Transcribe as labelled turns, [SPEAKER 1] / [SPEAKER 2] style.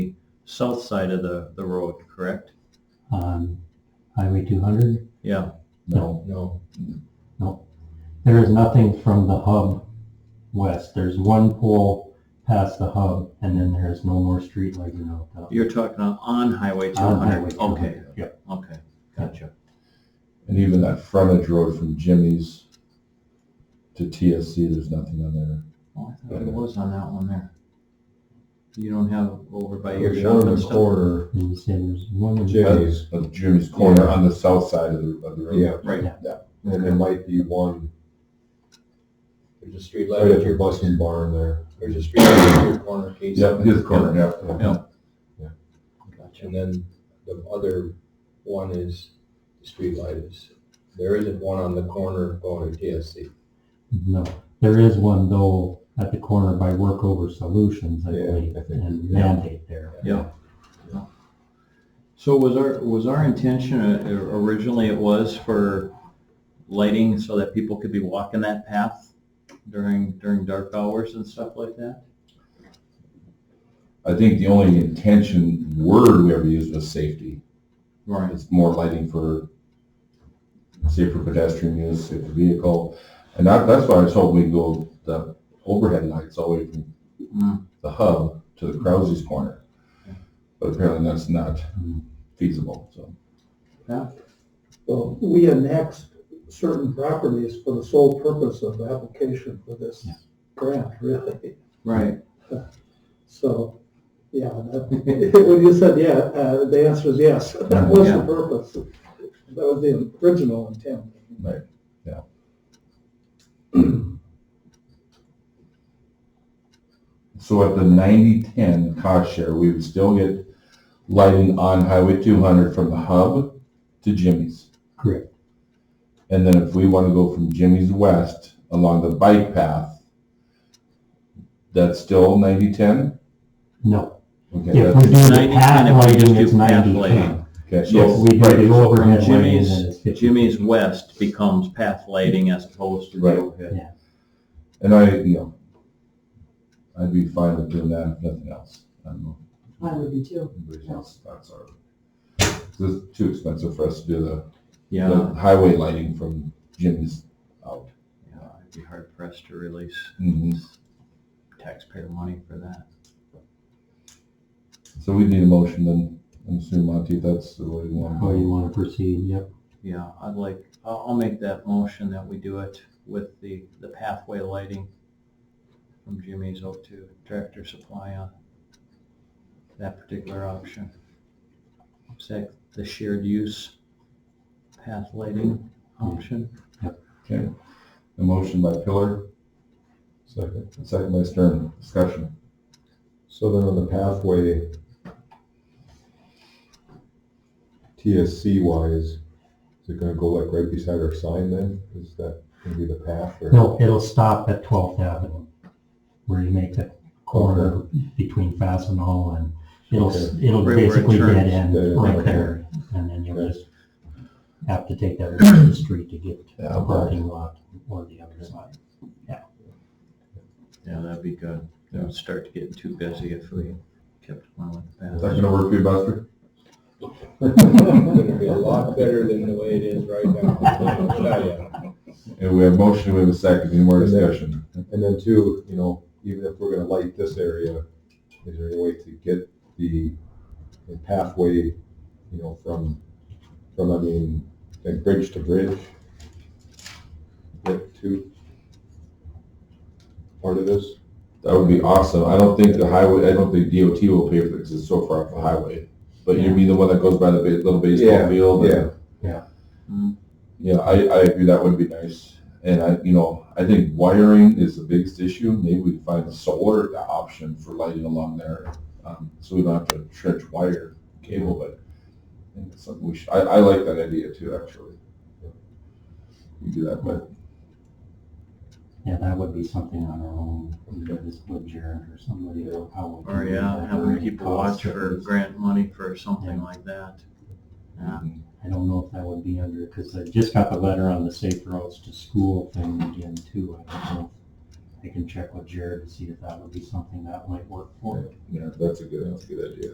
[SPEAKER 1] south side of the, the road, correct?
[SPEAKER 2] on Um, Highway 200.
[SPEAKER 1] Yeah,
[SPEAKER 3] No, no.
[SPEAKER 2] No, there is nothing from the hub west. There's one pole past the hub, and then there is no more street lighting out there.
[SPEAKER 1] you're talking on- on Highway
[SPEAKER 2] On Highway
[SPEAKER 1] 200. Okay,
[SPEAKER 2] 200, Yep,
[SPEAKER 1] okay, gotcha.
[SPEAKER 3] And even that frontage road from Jimmy's to TSC, there's nothing on there.
[SPEAKER 1] Oh, I thought it was on that one there. You don't have over by your
[SPEAKER 3] There's
[SPEAKER 1] shop
[SPEAKER 3] one in
[SPEAKER 1] and
[SPEAKER 3] the
[SPEAKER 1] stuff?
[SPEAKER 3] Corner,
[SPEAKER 2] and you say there's one. in-
[SPEAKER 3] Jimmy's, of Jimmy's corner on the south side of the, of the road.
[SPEAKER 4] Yeah,
[SPEAKER 1] Right,
[SPEAKER 4] and there might be one
[SPEAKER 5] There's a street light
[SPEAKER 4] right
[SPEAKER 5] at
[SPEAKER 4] at
[SPEAKER 5] your,
[SPEAKER 4] your busing barn there.
[SPEAKER 5] there's a street light at your corner, Casey.
[SPEAKER 3] Yeah, his corner, yeah.
[SPEAKER 1] Yeah.
[SPEAKER 5] And then the other one is, the street light is, there isn't one on the corner going to TSC.
[SPEAKER 2] No, there is one though at the corner by Workover Solutions, I
[SPEAKER 4] Yeah,
[SPEAKER 2] believe,
[SPEAKER 4] I think-
[SPEAKER 2] and mandate there.
[SPEAKER 1] yeah. So was our, was our intention, uh, originally it was for lighting so that people could be walking that path during, during dark hours and stuff like that?
[SPEAKER 3] I think the only intention word we ever used was safety.
[SPEAKER 1] Right,
[SPEAKER 3] It's more lighting for safer pedestrian use, safer vehicle. And that, that's why I was hoping we'd go the overhead lights all the way from
[SPEAKER 1] Mm,
[SPEAKER 3] the hub to the Krause's corner. But apparently that's not feasible, so.
[SPEAKER 6] Well, we annexed certain properties for the sole purpose of application for this
[SPEAKER 2] Yeah.
[SPEAKER 6] grant, really.
[SPEAKER 1] right,
[SPEAKER 6] So, yeah, that- when you said, yeah, uh, the answer is yes. That was the
[SPEAKER 1] Yeah.
[SPEAKER 6] purpose. That was the original intent.
[SPEAKER 3] Right, yeah. So at the 90-10 cost share, we would still get lighting on Highway two hundred from the hub to Jimmy's.
[SPEAKER 2] Correct.
[SPEAKER 3] And then if we want to go from Jimmy's west along the bike path, that's still 90-10.
[SPEAKER 2] No,
[SPEAKER 3] Okay,
[SPEAKER 2] if
[SPEAKER 3] that's,
[SPEAKER 2] we do the
[SPEAKER 1] 90,
[SPEAKER 2] path
[SPEAKER 1] if we
[SPEAKER 2] lighting,
[SPEAKER 1] do
[SPEAKER 2] it's
[SPEAKER 1] path
[SPEAKER 2] 90.
[SPEAKER 1] lighting.
[SPEAKER 3] okay,
[SPEAKER 2] If
[SPEAKER 3] so,
[SPEAKER 2] we do
[SPEAKER 3] right,
[SPEAKER 2] the
[SPEAKER 3] so
[SPEAKER 2] overhead lighting,
[SPEAKER 1] Jimmy's-
[SPEAKER 2] then it's 50.
[SPEAKER 1] Jimmy's West becomes path lighting as opposed to the
[SPEAKER 3] Right.
[SPEAKER 1] overhead.
[SPEAKER 3] and I, you know, I'd be fine with doing that, if nothing else. I don't know.
[SPEAKER 7] I would be too.
[SPEAKER 3] Everybody else, that's our, it's too expensive for us to do the,
[SPEAKER 1] Yeah,
[SPEAKER 3] the highway lighting from Jimmy's out.
[SPEAKER 1] yeah, I'd be hard pressed to release
[SPEAKER 3] Mhm.
[SPEAKER 1] taxpayer money for that.
[SPEAKER 3] So we need a motion then, I'm assuming Monty, if that's the way you want.
[SPEAKER 2] How Oh, you wanna proceed, yep.
[SPEAKER 1] Yeah, I'd like, I'll, I'll make that motion that we do it with the, the pathway lighting from Jimmy's up to Tractor Supply on that particular option. Is that the shared use path lighting option?
[SPEAKER 3] Okay, a motion by Pillar. Second. Second by Stern, discussion.
[SPEAKER 4] So then on the pathway, TSC wise, is it gonna go like right beside our sign then? Is that gonna be the path or?
[SPEAKER 2] No, it'll stop at 12th Avenue, where you make that corner between Fastenal and it'll, it'll
[SPEAKER 1] Right where it
[SPEAKER 2] basically
[SPEAKER 1] turns.
[SPEAKER 2] dead end
[SPEAKER 4] Yeah, yeah,
[SPEAKER 2] right
[SPEAKER 1] okay.
[SPEAKER 2] there. And then you'll
[SPEAKER 4] Okay.
[SPEAKER 2] just have to take that other the street to get to
[SPEAKER 3] Yeah,
[SPEAKER 2] the parking lot or the other side.
[SPEAKER 1] Yeah, that'd be good. It would start to get too busy if we kept going with the path.
[SPEAKER 3] Is that gonna work for you, Buster?
[SPEAKER 5] It's gonna be a lot better than the way it is right now, I'll tell ya.
[SPEAKER 3] And we have motion, we have a second, any more discussion?
[SPEAKER 4] And then too, you know, even if we're gonna light this area, is there any way to get the the pathway, you know, from, from, I mean, like bridge to bridge? Get to part of this?
[SPEAKER 3] That would be awesome, I don't think the highway, I don't think DOT will pay for it, because it's so far off the highway. But you mean the one that goes by the ba- little baseball
[SPEAKER 4] Yeah,
[SPEAKER 3] field? and-
[SPEAKER 4] yeah.
[SPEAKER 3] Yeah, I, I agree, that would be nice. And I, you know, I think wiring is the biggest issue. Maybe we can find a solar option for lighting along there. Um, so we don't have to trench wire cable, but I think it's something we should, I, I like that idea too, actually. You do that, but
[SPEAKER 2] Yeah, that would be something on our own, either this Wood Jared or somebody or how. we
[SPEAKER 1] Or
[SPEAKER 2] can do
[SPEAKER 1] Oh, yeah,
[SPEAKER 2] that,
[SPEAKER 1] having
[SPEAKER 2] or
[SPEAKER 1] to
[SPEAKER 2] any
[SPEAKER 1] keep a watch
[SPEAKER 2] cost it
[SPEAKER 1] for
[SPEAKER 2] is.
[SPEAKER 1] grant money for something like that. Yeah.
[SPEAKER 2] I don't know if that would be under, because I just got the letter on the safe routes to school thing again too. I don't know. I can check with Jared to see if that would be something that might work for it.
[SPEAKER 3] yeah, that's a good, that's a good idea.